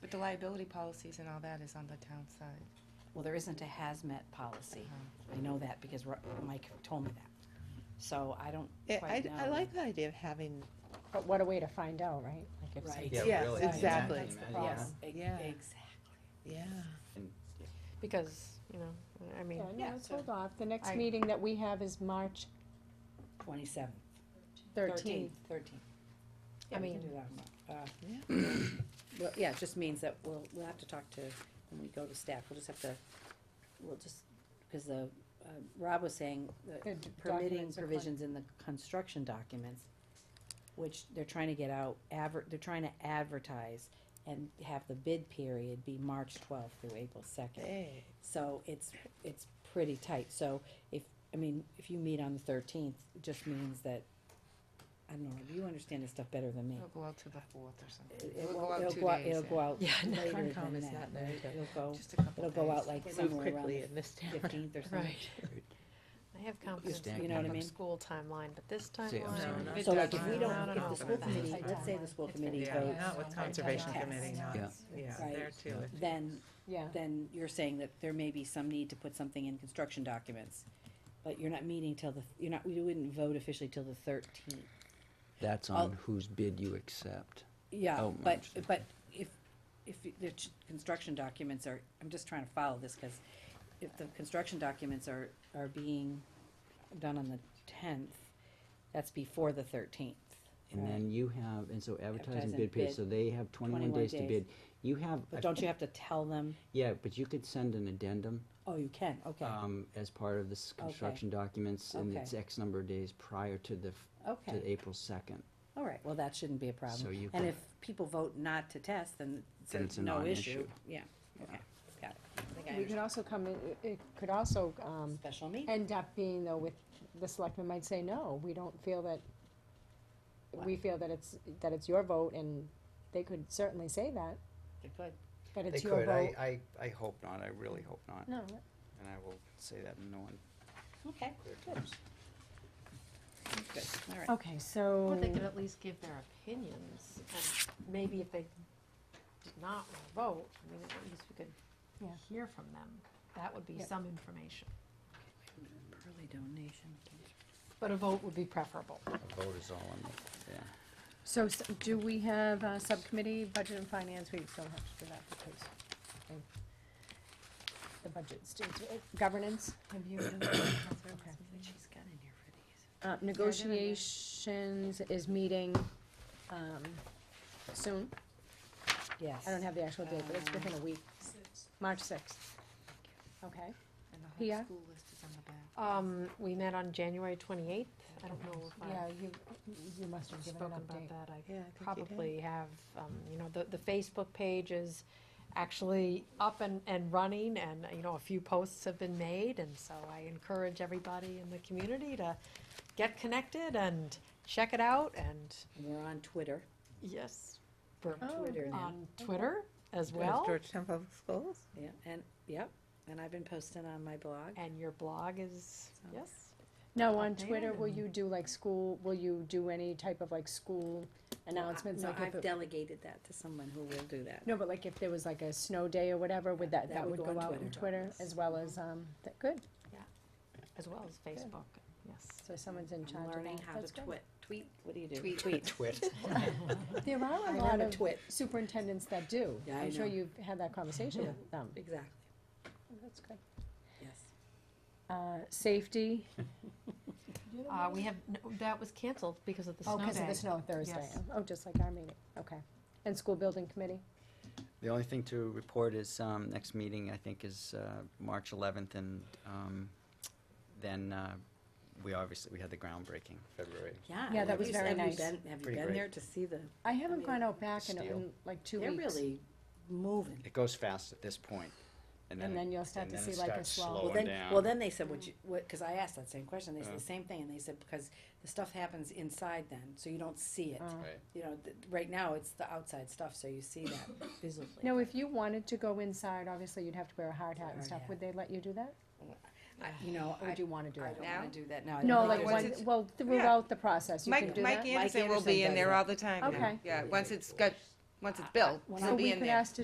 But the liability policies and all that is on the town side. um, Well, there isn't a hazmat policy. I know that because Ro- Mike told me that. So I don't Yeah, I, quite know. I like the idea of having, But what a way to find out, right? Like if Right. some- Yeah, Yes, really. exactly. Imagine That's the that. problem. Ex- Yeah. Exactly. yeah. Because, you know, I mean, Yeah, no, Yeah, let's so- hold off. The next I- meeting that we have is March Twenty-seven. thirteenth. Thirteen. I Yeah, we can mean- do that. Uh, Well, yeah, it just means that we'll, we'll have to talk to, when we go to staff, we'll just have to, we'll just, because the, uh, Rob was saying that The d- permitting documents are con- provisions in the construction documents, which they're trying to get out, adver, they're trying to advertise and have the bid period be March twelfth through April second. Eh. Hey, So it's, it's pretty tight, so if, I mean, if you meet on the thirteenth, it just means that, I don't know, you understand this stuff better than me. it'll go out to the fourth or something. It- It will, it'll go out, it'll go out Yeah, later than that. Concom is not there till- It'll go, Just a couple it'll days. go out like they move somewhere around quickly the in this town. fifteenth or something. I have confidence stack them. in the You know what I mean? public school timeline, but this See, I'm sorry. timeline. No, It So like does if we not- don't, not if the enough school of that. committee, let's say the school committee Yeah, votes, not with Conservation Yes. Committee, not, Yeah. yeah, Right. there too. Yeah. then, Yeah, then you're saying that there may be some need to put something in construction documents. But you're not meeting till the, you're not, you wouldn't vote officially till the thirteenth. That's I'll- on whose bid you accept. Yeah, Oh, but, understood. but if, if the ch- construction documents are, I'm just trying to follow this, cause if the construction documents are, are being done on the tenth, that's before the thirteenth. And then you have, and so advertising Advertising bid period, bid, so they have twenty-one 21 days to days. bid. You have, But don't you have to tell them, yeah, but you could send an addendum, oh, you can, okay, um, as part of this construction documents, and Okay. it's X number of days prior to the, f- to okay, April second. all right, well, that shouldn't be a problem. So you And could- if people vote not to test, then Then it's there's a no issue, non-issue. yeah, okay, got it. I think I we could understand. also come, in it could also, um, Special meeting, end up being though with, the selectmen might say, no, we don't feel that, we feel that it's, that it's your vote and they could certainly say that, good, that They it's your could, vote. I, I, I hope not, I really hope not, No, and I will say that in no one okay, clear terms. good, all right. okay, so. Or they could at least give their opinions, and maybe if they did not wanna vote, I mean, at least we could Yeah. hear from them. That would be Yeah. some information. Early donation. But a vote would be preferable. A vote is all on the, yeah. So s- do we have a subcommittee, budget and finance, we still have to do that because of the budget, students, uh, governance, Have you? Okay. She's got in here for these. uh, negotiations is meeting, um, soon. Yes. I don't have the actual date, but it's within a week, March sixth. Okay, And the whole Pia? school list is on the back. Um, we met on January twenty-eighth. I don't know if yeah, I you, you must have given an spoken about update. that. I Yeah, I think you did. probably have, um, you know, the, the Facebook page is actually up and, and running and, you know, a few posts have been made. And so I encourage everybody in the community to get connected and check it out and, We're on Twitter. yes, we're Oh, Twitter now. on Twitter as Does well. Georgetown Public Schools? Yeah, and, yep, and I've been posting on my blog. And your blog is, yes, Now, on Updated Twitter, will and- you do like school, will you do any type of like school announcements? No, like if I've it- delegated that to someone who will do that. No, but like if there was like a snow day or whatever, would that, that would go out on Twitter as well as, um, that, good, as well as Facebook, yes. so someone's in charge I'm of that. learning how to That's good. twit, tweet, what do you do? Tweet. Twit. There are I a learned lot to of twit. superintendents that do, Yeah, I I'm sure know. you've had that conversation with them, Exactly, that's good. yes. Uh, safety, Uh, we have, no, that was canceled because of the snow oh, day. cause of the snow Thursday, Yes. oh, just like our meeting, okay, and school building committee, The only thing to report is, um, next meeting, I think, is, uh, March eleventh, and, um, then, uh, we obviously, we had the groundbreaking February. Yeah. Yeah, that was you- very have you nice. been- Have you Pretty been great. there to see the, I mean, haven't gone out back in, steel. in like two they're weeks. really moving. It goes fast at this point, and then. And it- then you'll start and to then see it like a starts slow- Well, Well, slowing then, down. well, then they said, would you, what, cause I asked that same question, they said Yeah. the same thing, and they said, because the stuff happens inside then, so you don't see it. Oh. Right. You know, th- right now, it's the outside stuff, so you see that visibly. Now, if you wanted to go inside, obviously you'd have to wear a hard hat and Hard stuff, hat. would they let you do that? I- You know, Or I would you wanna do I that? don't wanna do that now. I No, don't like think when, there's- it's- well, throughout the process, you can Mike, do Mike that? Mike Anderson will be Anderson in there does all the time now. Okay. Yeah, once it's got, once it's built, when he'll So be we in could there. ask to